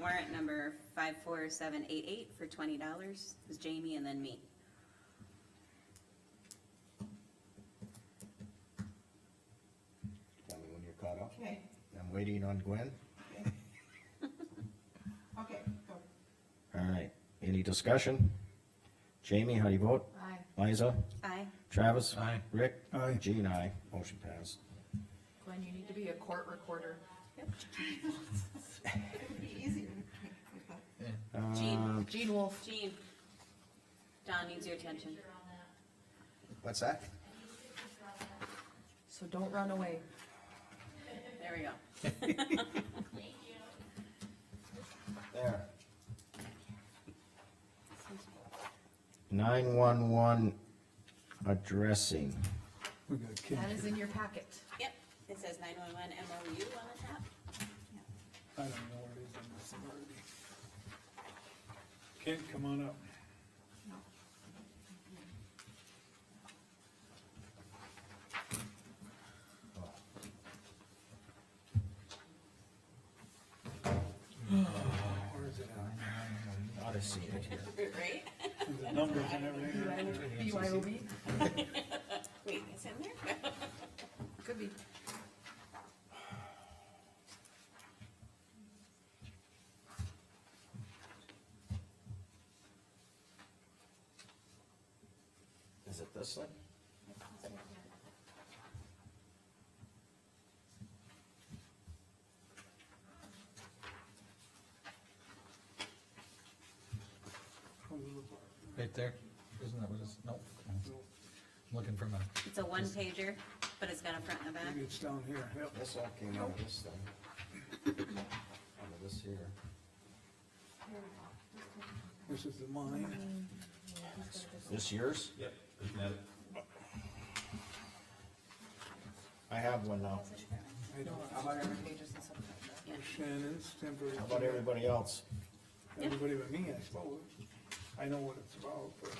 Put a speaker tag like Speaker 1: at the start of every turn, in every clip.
Speaker 1: warrant number five four seven eight eight for twenty dollars. It was Jamie and then me.
Speaker 2: Tell me when you're caught up.
Speaker 3: Okay,
Speaker 2: I'm waiting on Gwen.
Speaker 3: okay, go.
Speaker 2: All right, any discussion? Jamie, how do you vote?
Speaker 3: Aye.
Speaker 2: Liza?
Speaker 1: Aye.
Speaker 2: Travis?
Speaker 4: Aye.
Speaker 2: Rick?
Speaker 5: Aye.
Speaker 2: Jean, aye. Motion passed.
Speaker 6: Glenn, you need to be a court recorder.
Speaker 3: It'd be easier.
Speaker 2: Um,
Speaker 5: Uh,
Speaker 1: Jean,
Speaker 6: Gene Wolfe.
Speaker 1: Jean. Don needs your attention.
Speaker 2: What's that?
Speaker 6: So don't run away.
Speaker 1: There we go.
Speaker 2: There. Nine-one-one addressing.
Speaker 5: We got Kim.
Speaker 6: That is in your packet.
Speaker 1: Yep, it says nine one one MOU on the top.
Speaker 5: I don't know where it is in this already. Kent, come on up. Where is it at?
Speaker 2: Ought to see it here.
Speaker 1: Right?
Speaker 5: The numbers and everything.
Speaker 6: BYOB?
Speaker 1: Wait, it's in there?
Speaker 6: Could be.
Speaker 2: Is it this thing?
Speaker 4: Right there, isn't that what it's, nope. I'm Looking for my,
Speaker 1: It's a one pager, but it's got a front and a back.
Speaker 5: Maybe it's down here, yep.
Speaker 2: This all came out of this thing. Out of this here.
Speaker 5: This is the mine.
Speaker 2: This yours? Yep. I have one now.
Speaker 5: I don't, Shannon's temporary.
Speaker 2: How about everybody else?
Speaker 5: Everybody but me, I suppose. I know what it's about, but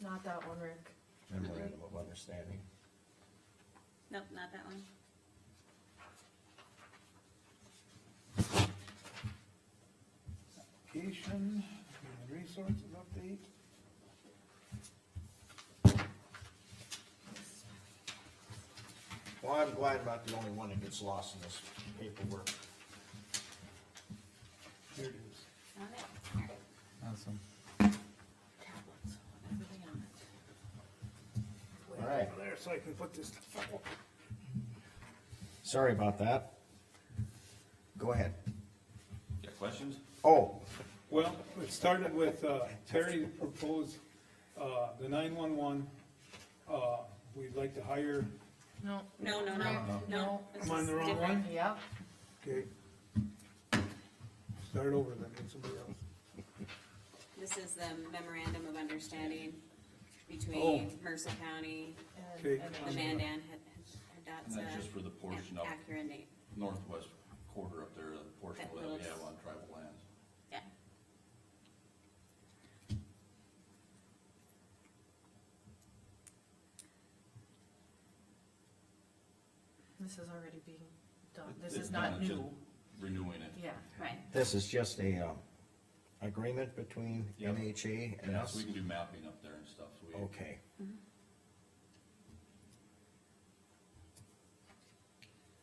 Speaker 6: Not that one, Rick.
Speaker 2: Memorandum of understanding.
Speaker 1: Nope, not that one.
Speaker 5: Education, human resources update.
Speaker 2: Well, I'm glad about the only one that gets lost in this paperwork.
Speaker 5: Here it is.
Speaker 1: Found it.
Speaker 4: awesome.
Speaker 2: All right,
Speaker 5: There, so I can put this to file.
Speaker 2: sorry about that. Go ahead.
Speaker 7: Got questions?
Speaker 2: Oh,
Speaker 5: Well, it started with, uh, Terry proposed, uh, the nine-one-one, uh, we'd like to hire,
Speaker 6: No.
Speaker 1: No, no, no, no.
Speaker 6: No.
Speaker 1: this
Speaker 5: Am I on
Speaker 1: is
Speaker 5: the wrong
Speaker 1: different.
Speaker 5: one?
Speaker 6: Yep.
Speaker 5: okay? Start over then, with somebody else.
Speaker 1: This is the memorandum of understanding between Mercer County,
Speaker 5: Okay,
Speaker 1: the Mandan, Hidatsa.
Speaker 7: And that's just for the portion
Speaker 1: and
Speaker 7: up,
Speaker 1: Acura and Nate,
Speaker 7: northwest quarter up there, the portion
Speaker 1: That
Speaker 7: of that we
Speaker 1: little-
Speaker 7: have on tribal lands.
Speaker 1: yeah.
Speaker 6: This is already being done. This
Speaker 7: It's
Speaker 6: is not
Speaker 7: kinda just
Speaker 6: new.
Speaker 7: Renewing it.
Speaker 6: Yeah.
Speaker 1: Right.
Speaker 2: this is just a, um, agreement between
Speaker 7: Yep.
Speaker 2: MHA and
Speaker 7: Yeah, so
Speaker 2: us.
Speaker 7: we can do mapping up there and stuff, so we,
Speaker 2: Okay.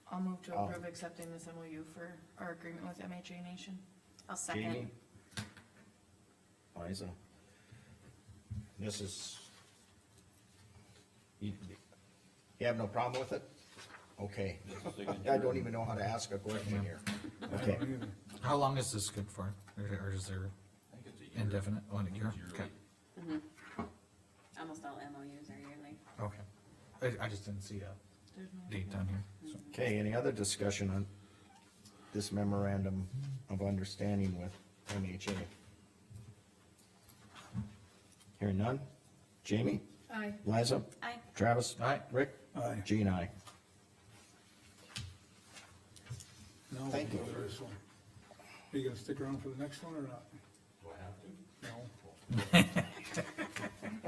Speaker 6: I'll move to
Speaker 2: Oh.
Speaker 6: approve accepting this MOU for our agreement with MHA Nation.
Speaker 1: I'll
Speaker 2: Jamie?
Speaker 1: second.
Speaker 2: Liza? This is. You you have no problem with it? Okay.
Speaker 7: just a signature.
Speaker 2: I don't e- even know how to ask a question here. Okay,
Speaker 4: How long is this good for? Or or is there
Speaker 7: I think it's a year.
Speaker 4: indefinite, one
Speaker 7: It's
Speaker 4: year?
Speaker 7: yearly.
Speaker 4: Okay,
Speaker 1: Almost all MOUs are yearly.
Speaker 4: okay. I, I just didn't see a
Speaker 6: There's no-
Speaker 4: date down here, so.
Speaker 2: okay, any other discussion on this memorandum of understanding with MHA? Hearing none? Jamie?
Speaker 6: Aye.
Speaker 2: Liza?
Speaker 1: Aye.
Speaker 2: Travis?
Speaker 4: Aye.
Speaker 2: Rick?
Speaker 5: Aye.
Speaker 2: Jean, aye.
Speaker 5: now we'll
Speaker 2: Thank you.
Speaker 5: go to this one. Are you gonna stick around for the next one or not? Do I have to? No.